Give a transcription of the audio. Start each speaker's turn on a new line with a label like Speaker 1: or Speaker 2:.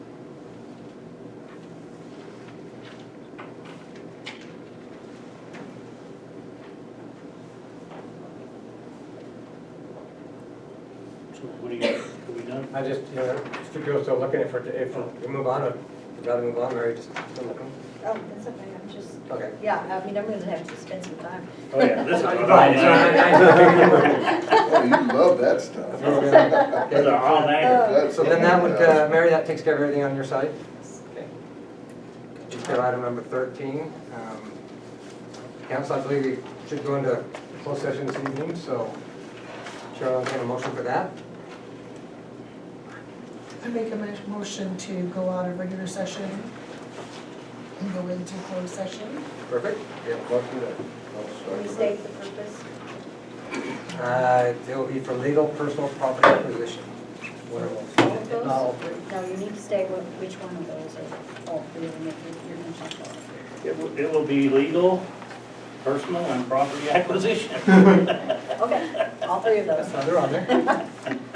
Speaker 1: So what do you, are we done?
Speaker 2: I just, you know, if people are still looking, if we're, if we move on, I'd rather move on, Mary, just still looking.
Speaker 3: Oh, that's okay, I'm just,
Speaker 2: Okay.
Speaker 3: yeah, I mean, I'm gonna have to spend some time.
Speaker 1: Oh, yeah, this is
Speaker 2: Right,
Speaker 1: what
Speaker 2: right, right.
Speaker 4: Oh, you love that stuff.
Speaker 2: That's what we're gonna-
Speaker 1: Those
Speaker 2: okay.
Speaker 1: are all nighters.
Speaker 4: That's
Speaker 2: So then
Speaker 4: something
Speaker 2: that would, uh,
Speaker 4: else.
Speaker 2: Mary, that takes care of everything on your side? Okay. Just go to item number 13. Um, Council, I believe we should go into closed session this evening, so Chair, I'll entertain a motion for that.
Speaker 5: I make a mo- motion to go out of regular session and go into closed session.
Speaker 2: Perfect. We have a motion
Speaker 4: Oh,
Speaker 3: Can we
Speaker 2: to-
Speaker 3: state the purpose?
Speaker 2: Uh, It will be for legal personal property acquisition. What are
Speaker 3: All
Speaker 2: those?
Speaker 3: of those?
Speaker 2: No.
Speaker 3: No, you need to state what, which one of those are, all three of them, if you're gonna check all.
Speaker 1: It will, it will be legal, personal, and property acquisition.
Speaker 3: Okay, all three of those.
Speaker 2: That's another on there.